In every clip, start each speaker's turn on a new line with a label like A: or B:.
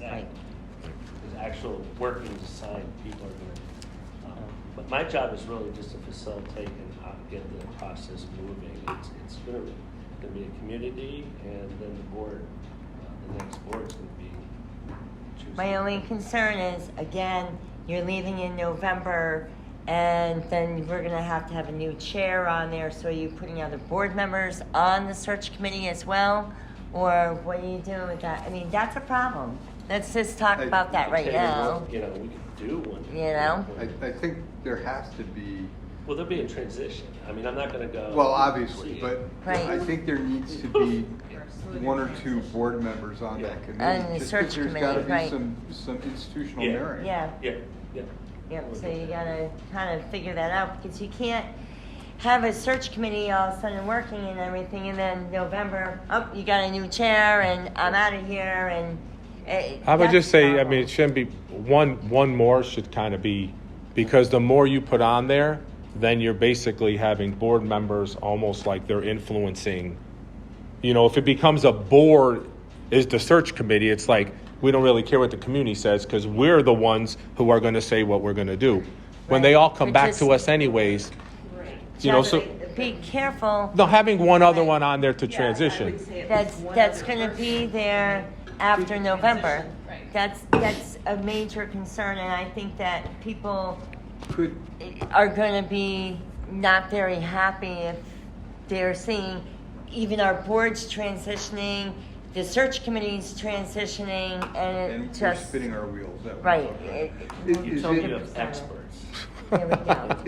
A: Right.
B: There's actual working design people are doing. Um, But my job is really just to facilitate and uh, get the process moving. It's, it's gonna, gonna be a community and then the board, uh, the next board's gonna be choosing.
A: My only concern is, again, you're leaving in November, and then we're gonna have to have a new chair on there, so are you putting other board members on the search committee as well? Or what are you doing with that? I mean, that's a problem. Let's just talk
C: I-
A: about that right
B: Okay,
A: now.
B: well, You know, we could do one. at
A: You know?
B: one point.
C: I, I think there has to be,
B: Well, there'll be a transition. I mean, I'm not gonna go.
C: well, obviously,
B: Oh, see it.
C: but
A: Right.
C: I think there needs to be one or two board members on that committee.
A: And the
C: just 'cause
A: search
C: There's gotta
A: committee, right.
C: be some, some institutional
B: Yeah.
C: merit.
A: Yeah.
B: Yeah, yeah.
A: Yep,
B: We'll
A: so
B: get
A: you
B: there.
A: gotta kind of figure that out because you can't have a search committee all of a sudden working and everything and then November, oh, you got a new chair and I'm out of here and. it-
D: I would
A: that's
D: just say, I
A: problem.
D: mean, it shouldn't be, one, one more should kind of be, because the more you put on there, then you're basically having board members almost like they're influencing. You know, if it becomes a board is the search committee, it's like, we don't really care what the community says because we're the ones who are going to say what we're going to do. When they
A: Right.
D: all come
A: We're
D: back
A: just-
D: to us anyways, you know, so,
A: Be careful.
D: no, having one other
A: Right.
D: one on there to
E: Yeah, I would
D: transition.
E: say at
A: That's,
E: least one
A: that's
E: other
A: gonna be
E: person.
A: there after November.
E: right.
A: That's, that's a major concern and I think that people
C: Could,
A: are going to be not very happy if they're seeing even our boards transitioning, the search committees transitioning, and it
C: and we're
A: just
C: spinning our wheels. that way.
A: right.
C: Okay.
A: It-
C: Is-
B: You
C: is
B: told me
C: it-
B: you have experts.
A: There we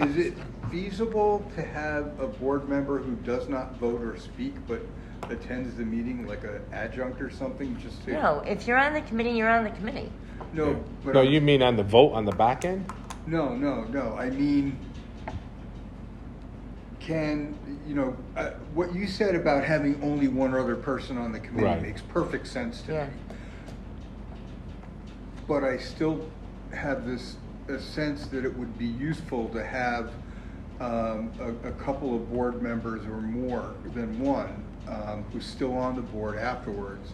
A: go.
C: Is it feasible to have a board member who does not vote or speak but attends the meeting like an adjunct or something just to?
A: No, if you're on the committee, you're on the committee.
C: No, but.
D: No, you mean on the vote on the back end?
C: No, no, no, I mean, can, you know, uh, what you said about having only one other person on the committee
D: Right.
C: makes perfect sense to me.
A: Yeah.
C: But I still have this, a sense that it would be useful to have um, a, a couple of board members or more than one um, who's still on the board afterwards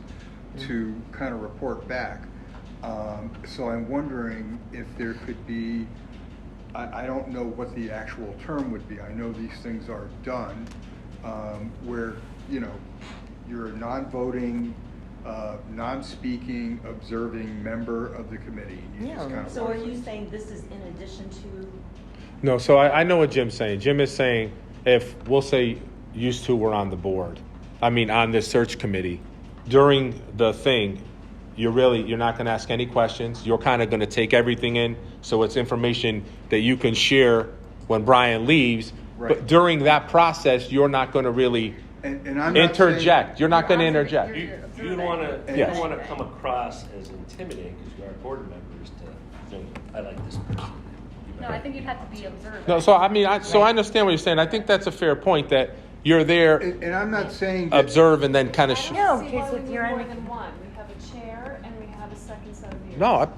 C: to kind of report back. Um, So I'm wondering if there could be, I, I don't know what the actual term would be. I know these things are done, um, where, you know, you're a non-voting, uh, non-speaking, observing member of the committee. You just
A: Yeah.
C: kinda
E: So are
C: watch
E: you
C: it.
E: saying this is in addition to,
D: No, so I, I know what Jim's saying. Jim is saying if we'll say used to were on the board, I mean on this search committee, during the thing, you're really you're not going to ask any questions. You're kind of going to take everything in, so it's information that you can share when Brian leaves.
C: Right.
D: But during that process, you're not going to really
C: And, and I'm not saying-
D: interject. You're not going to
E: You're
D: interject.
B: You, you
E: observing.
B: don't wanna, you
D: Yes.
B: don't wanna come across as intimidating, because you are board members to think, I like this person. You
F: No,
B: know.
F: I think you'd have to be observant.
D: No, so I mean, I, so I understand what you're saying. I think that's a fair point that you're there,
C: And, and I'm not saying that.
D: observe, and then kind of. Sh-
G: I
A: No,
G: don't see
A: because
G: why we
A: if
G: need
A: you're on
G: more
A: the-
G: than one. We have a chair and we have a second set of ears.
D: no, I,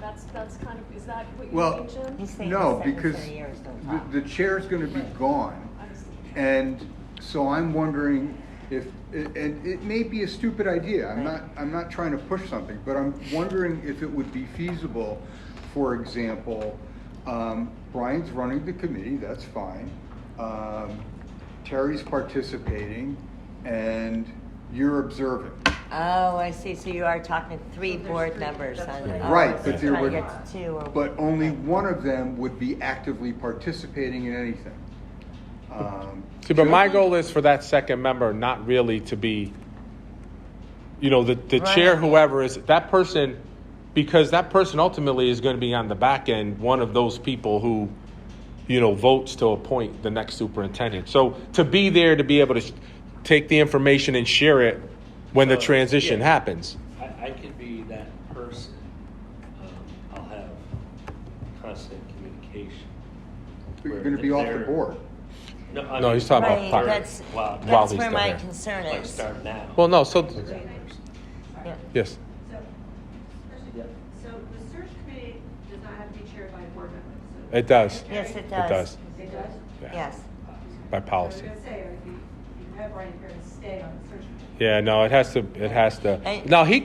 G: That's, that's kind of, is that what
C: Well-
G: you think, Jim?
A: He's saying
C: No,
A: the second
C: because
A: set of years don't
C: the,
A: talk.
C: the chair's gonna be gone.
G: I see.
C: And so I'm wondering if, and it may be a stupid idea, I'm not, I'm not trying to push something, but I'm wondering if it would be feasible, for example, um, Brian's running the committee, that's fine. Um, Terry's participating and you're observing.
A: Oh, I see. So you are talking to three
E: there's
A: board
E: three.
A: members
E: That's
A: on.
E: right.
A: oh,
C: Right,
A: so
C: but
A: you're
C: there
A: trying to
C: would-
A: get to two or-
C: But only one of them would be actively participating in anything. Um,
D: See, but my
C: just-
D: goal is for that second member not really to be, you know, the, the chair,
A: Right.
D: whoever is that person, because that person ultimately is going to be on the back end, one of those people who, you know, votes to appoint the next superintendent. So to be there to be able to sh- take the information and share it when
B: Uh,
D: the transition
B: yeah.
D: happens.
B: I, I could be that person. Um, I'll have constant communication.
C: But You're
B: Where
C: gonna
B: if
C: be off the
B: they're-
C: board.
B: No, I
D: No,
B: mean,
D: he's talking about
A: Right,
D: part-
A: that's,
B: Wow.
D: While
A: that's
D: he's
A: where
D: still
A: my
D: there.
A: concern
B: Like
A: is.
B: start now.
D: Well, no, so
B: As that person.
A: Yeah.
D: yes,
B: Yeah.
H: So the search committee does not have to be chaired by a board member, so.
D: it does.
A: Yes, it
D: It
A: does.
D: does
H: It does?
D: Yeah.
A: Yes.
D: by
H: I
D: policy.
H: was gonna say, if you, you have Ryan here to stay on the search committee.
D: Yeah, no, it has to. It has to.
A: And-
D: Now he